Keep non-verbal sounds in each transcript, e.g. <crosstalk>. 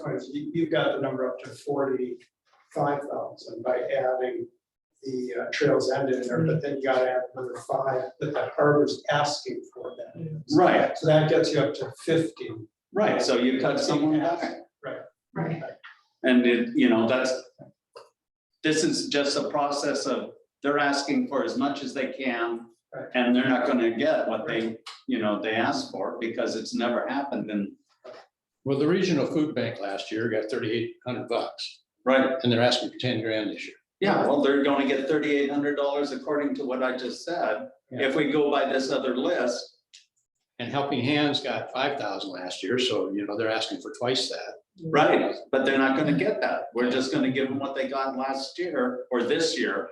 points, you- You've got the number up to forty-five thousand by adding the uh, trails end in there, but then you gotta add another five that the harbor's asking for that. is. Right, So that gets you up to fifty. right, so you cut someone back. Right. And it, you know, that's, this is just a process of, they're asking for as much as they can. Right. And they're not gonna get what they, you know, they asked for because it's never happened and, Well, the regional food bank last year got thirty-eight hundred bucks, right, and they're asking for ten grand this year. yeah, well, they're gonna get thirty-eight hundred dollars according to what I just said. If we go by this other list, And Helping Hands got five thousand last year, so you know, they're asking for twice that. right, but they're not gonna get that. We're just gonna give them what they got last year or this year.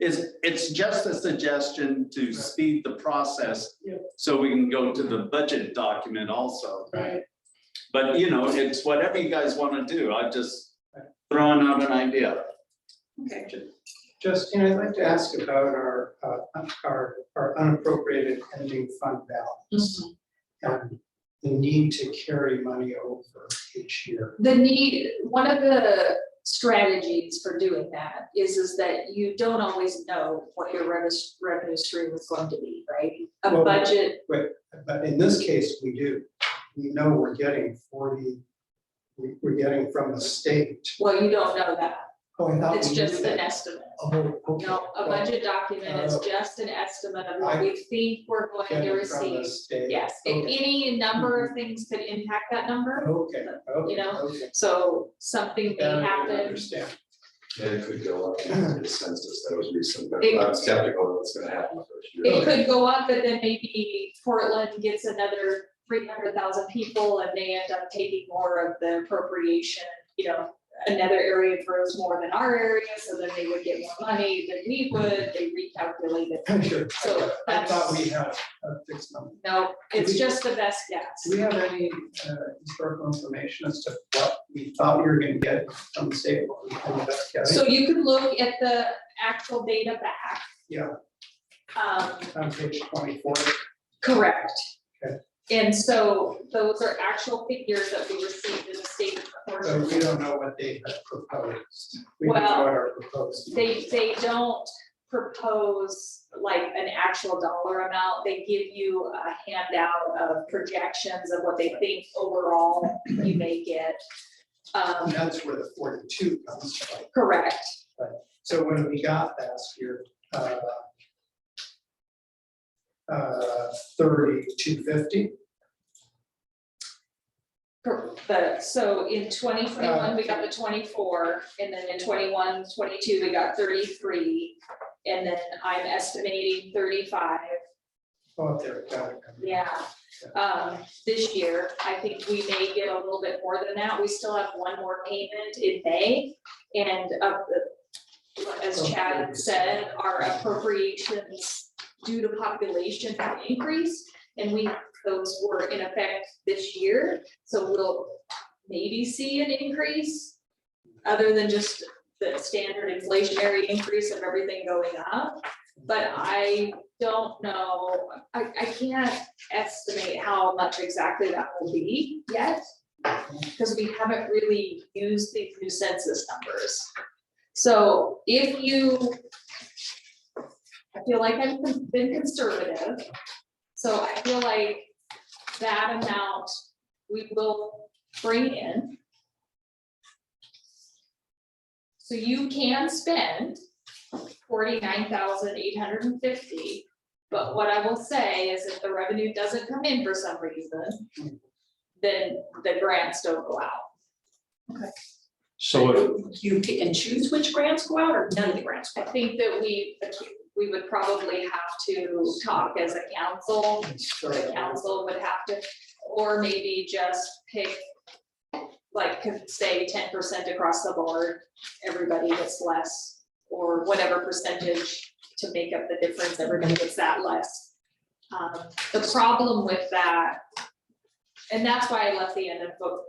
Is, it's just a suggestion to speed the process. Yep. So we can go to the budget document also. Right. But you know, it's whatever you guys want to do. I'm just throwing out an idea. Okay. Justin, I'd like to ask about our, uh, our, our unappropriated ending fund balance. Mm-hmm. And the need to carry money over each year. The need, one of the strategies for doing that is, is that you don't always know what your revenue, revenue stream is going to be, right? A Well- budget, But in this case, we do. We know we're getting forty, we- we're getting from the state. well, you don't know that, Oh, I thought we it's knew just an that. estimate. Oh, okay. No, a budget document is Uh, just an estimate of what we think we're going to Getting from the receive. state. Yes, a- Okay. any number of things could impact that number, Okay, okay. You know, okay. so something may Now I happen, Understand. <laughs> And it could go up in the census, that was recent, but It- I'm skeptical that's gonna happen the first year. It could go up, but then maybe Portland gets another three hundred thousand people and they end up taking more of the appropriation, you know. Another area grows more than our area, so then they would get more money than we would, they recalculate it. Sure. So I thought we that's- had a fixed number. No, it's just the best guess. Do we have any uh, historical information as to what we thought we were gonna get from the state? what we ended up getting? So you can look at the actual data back. Yeah. Um, On page twenty-four, Correct. Okay. And so those are actual figures that we received in the state so portion. we don't know what they had proposed. We don't know Well, what our proposed. They, they don't propose like an actual dollar amount. They give you a handout of projections of what they think overall you may get. And Um, that's where the forty-two comes from. correct. So when we got last year, uh, uh, thirty-two fifty, Cor- The, so in twenty twenty-one, we got the twenty-four, and then in 21, 22, we got thirty-three. And then I'm estimating thirty-five. oh, there, got it. Yeah, um, this year, I think we may get a little bit more than that. We still have one more payment in May. And of the- as Chad said, our appropriations due to population have increased. And we, those were in effect this year, so we'll maybe see an increase. Other than just the standard inflationary increase of everything going up. But I don't know, I, I can't estimate how much exactly that will be yet. Because we haven't really used these new census numbers. So if you. I feel like I've been conservative. So I feel like that amount we will bring in. So you can spend forty-nine thousand eight hundred and fifty. But what I will say is if the revenue doesn't come in for some reason, then the grants don't go out. So if, You pick and choose which grants go out or none of the grants go I out. think that we, we would probably have to talk as a council, the council would have to, or maybe just pick, like, could say ten percent across the board, everybody gets less, or whatever percentage to make up the difference, everybody gets that less. Um, the problem with that, and that's why I left the end of book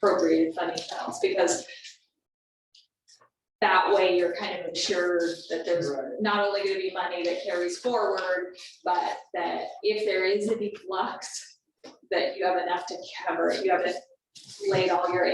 appropriated funding balance, because that way you're kind of assured that there's Right. not only gonna be money that carries forward, but that if there is a deflux, that you have enough to cover, it. you haven't laid all your